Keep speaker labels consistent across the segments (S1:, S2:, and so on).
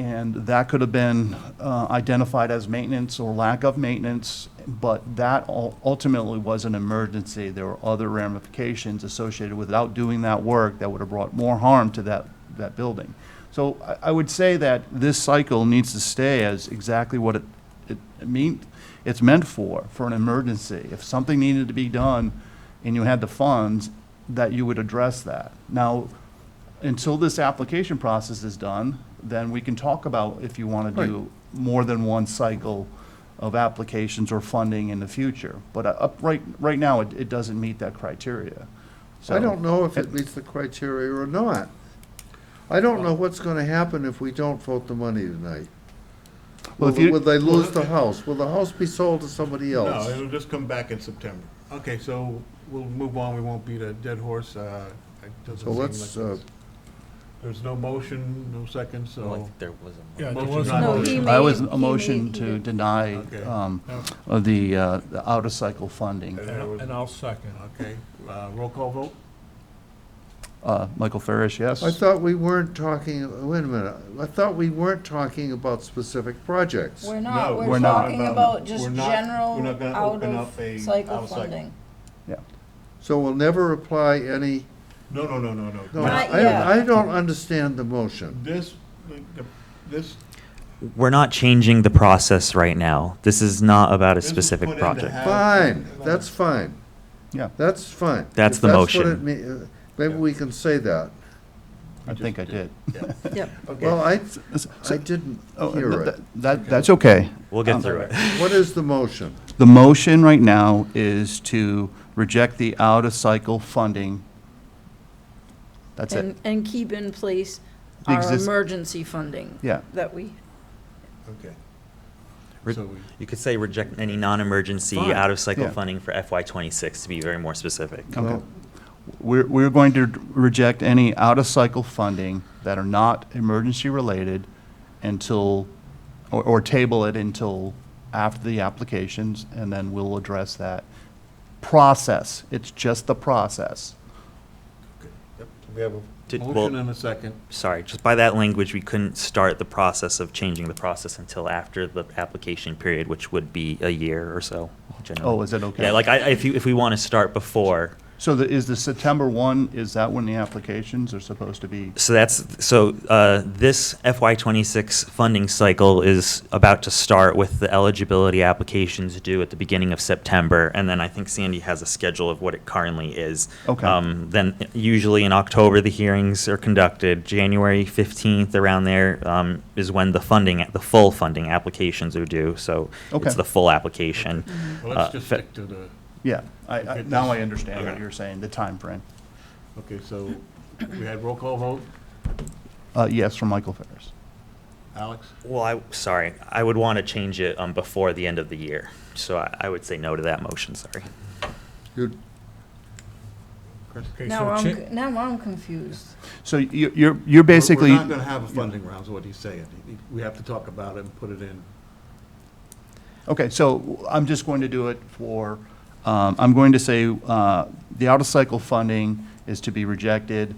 S1: And that could have been uh, identified as maintenance or lack of maintenance, but that ul- ultimately was an emergency. There were other ramifications associated without doing that work that would have brought more harm to that, that building. So I, I would say that this cycle needs to stay as exactly what it, it mean, it's meant for, for an emergency. If something needed to be done and you had the funds, that you would address that. Now, until this application process is done, then we can talk about if you want to do more than one cycle of applications or funding in the future. But uh, up, right, right now, it, it doesn't meet that criteria. So
S2: I don't know if it meets the criteria or not. I don't know what's gonna happen if we don't vote the money tonight.
S1: Well,
S2: Will,
S1: if you-
S2: will they lose the house? Will the house be sold to somebody
S3: No,
S2: else?
S3: it'll just come back in September. Okay, so we'll move on, we won't beat a dead horse, uh, it doesn't
S2: So
S3: seem like
S2: let's, uh,
S3: it's- there's no motion, no second,
S4: I don't
S3: so.
S4: think there was a.
S5: Yeah, there
S3: Motion
S5: was
S3: not
S5: no-
S6: No, he
S3: motion.
S6: made.
S1: I was
S6: he
S1: a motion
S6: made- he
S1: to
S6: did.
S1: deny
S3: Okay.
S1: um,
S5: No.
S1: of the, uh, the out-of-cycle funding.
S3: Uh,
S5: And I'll- and I'll second.
S3: Okay, uh, roll call vote?
S1: Uh, Michael Ferris, yes?
S2: I thought we weren't talking, wait a minute, I thought we weren't talking about specific projects.
S6: We're not,
S3: No,
S6: we're
S1: we're not.
S6: talking about just
S3: We're not- we're
S6: general
S3: not gonna
S6: out
S3: open up a
S6: of cycle
S3: out-of-cycle.
S6: funding.
S2: So we'll never apply any,
S3: No, no, no, no, no.
S2: no,
S6: Not yet.
S2: I, I don't understand the motion.
S3: This, the- the- this.
S4: We're not changing the process right now. This is not about a
S3: this was put
S4: specific
S3: in to
S4: project.
S3: have-
S2: Fine,
S3: uh,
S2: that's fine.
S1: Yeah.
S2: That's fine.
S4: That's
S2: If
S4: the
S2: what
S4: motion.
S2: it mea- uh, Maybe we can say that.
S1: I think I did.
S6: Yep.
S2: Well, I,
S1: So-
S2: I didn't
S1: oh,
S2: hear
S1: th-
S2: it.
S1: That, that's okay.
S4: We'll get
S1: Um,
S4: through it.
S2: What is the motion?
S1: The motion right now is to reject the out-of-cycle funding. That's it.
S6: And, and keep in place
S1: The
S6: our
S1: exist-
S6: emergency funding
S1: Yeah,
S6: that we,
S3: Okay.
S4: Re-
S3: So we-
S4: You could say reject any non-emergency
S3: Fine.
S1: Yeah.
S4: out-of-cycle funding for FY twenty-six, to be very more specific.
S1: okay.
S2: Well,
S1: We're, we're going to reject any out-of-cycle funding that are not emergency-related until, or, or table it until after the applications, and then we'll address that. Process, it's just the process.
S3: Yep, We have a
S4: Did-
S3: motion
S4: well-
S3: and a second.
S4: Sorry, just by that language, we couldn't start the process of changing the process until after the application period, which would be a year or so,
S1: Oh,
S4: generally.
S1: is it okay?
S4: Yeah, like I, I- if you, if we want to start before,
S1: So the, is the September one, is that when the applications are supposed to be?
S4: So that's so uh, this FY26 funding cycle is about to start with the eligibility applications due at the beginning of September, and then I think Sandy has a schedule of what it currently is.
S1: Okay.
S4: Um, then usually in October the hearings are conducted. January 15th around there um, is when the funding, the full funding applications are due. So
S1: Okay.
S4: it's the full application.
S3: Well, let's
S4: Uh,
S3: just
S4: fe-
S3: stick to the,
S1: Yeah, I, I, now I understand what
S4: Okay.
S1: you're saying, the time frame.
S3: okay, so we had roll call vote.
S1: Uh, yes, from Michael Ferris.
S3: Alex?
S4: Well, I sorry, I would want to change it um, before the end of the year. So I, I would say no to that motion. Sorry.
S2: you-
S5: Okay,
S6: now
S5: so
S6: I'm,
S5: cha-
S6: c- now I'm confused.
S1: So you, you're, you're
S3: We're-
S1: basically.
S3: We're not gonna have a funding round, is what he's saying. We have to talk about it and put it in.
S1: Okay, so I'm just going to do it for, um, I'm going to say, uh, the out-of-cycle funding is to be rejected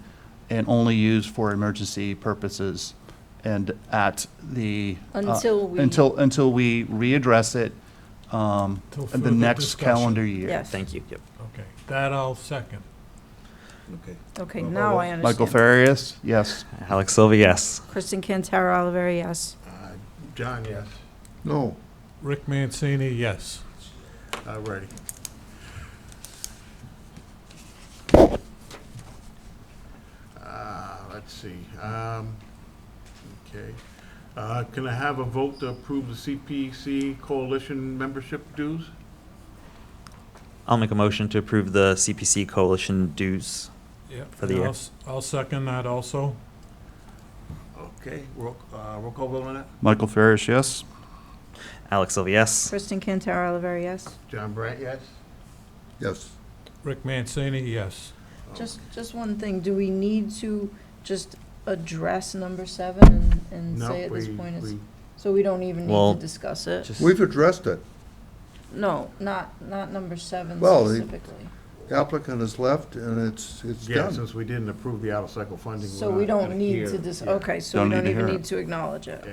S1: and only used for emergency purposes and at the. uh,
S6: Until we-
S1: Until, until we readdress it, um,
S5: Till
S1: in the
S5: further
S1: next
S5: discussion.
S1: calendar year.
S6: Yes.
S4: Thank you. Yep.
S5: Okay, that I'll second.
S3: Okay.
S6: Okay,
S3: Well,
S6: now
S3: well,
S6: I understand.
S1: Michael Farias, yes.
S4: Alex Silva, yes.
S6: Kristen Cantara Oliveri, yes.
S3: Uh, John, yes.
S2: No,
S5: Rick Mancini, yes.
S3: All righty. Uh, Let's see. um, Okay. Uh, Can I have a vote to approve the CPC coalition membership dues?
S4: I'll make a motion to approve the CPC coalition dues.
S5: Yep.
S4: For the
S5: and
S4: year.
S5: I'll s- I'll second that also.
S3: Okay, roll uh, roll call vote on that?
S1: Michael Farias, yes.
S4: Alex Silva, yes.
S6: Kristen Cantara Oliveri, yes.
S3: John Brandt, yes?
S2: yes.
S5: Rick Mancini, yes.
S6: Just, just one thing, do we need to just address number seven and, and
S3: No,
S6: say at this
S3: we-
S6: point it's,
S3: we-
S6: so we don't even
S4: Well,
S6: need to discuss it?
S4: Just-
S2: We've addressed it.
S6: No, not, not number seven
S2: Well, the-
S6: specifically.
S2: Applicant has left and it's, it's
S3: Yeah,
S2: done.
S3: since we didn't approve the out-of-cycle funding.
S6: So
S3: we're
S6: we
S3: not
S6: don't
S3: gonna
S6: need
S3: hear-
S6: to
S3: yeah.
S6: dis, okay, so
S1: Don't
S6: we
S1: need
S6: don't
S1: to
S6: even
S1: hear it.
S6: need to acknowledge it.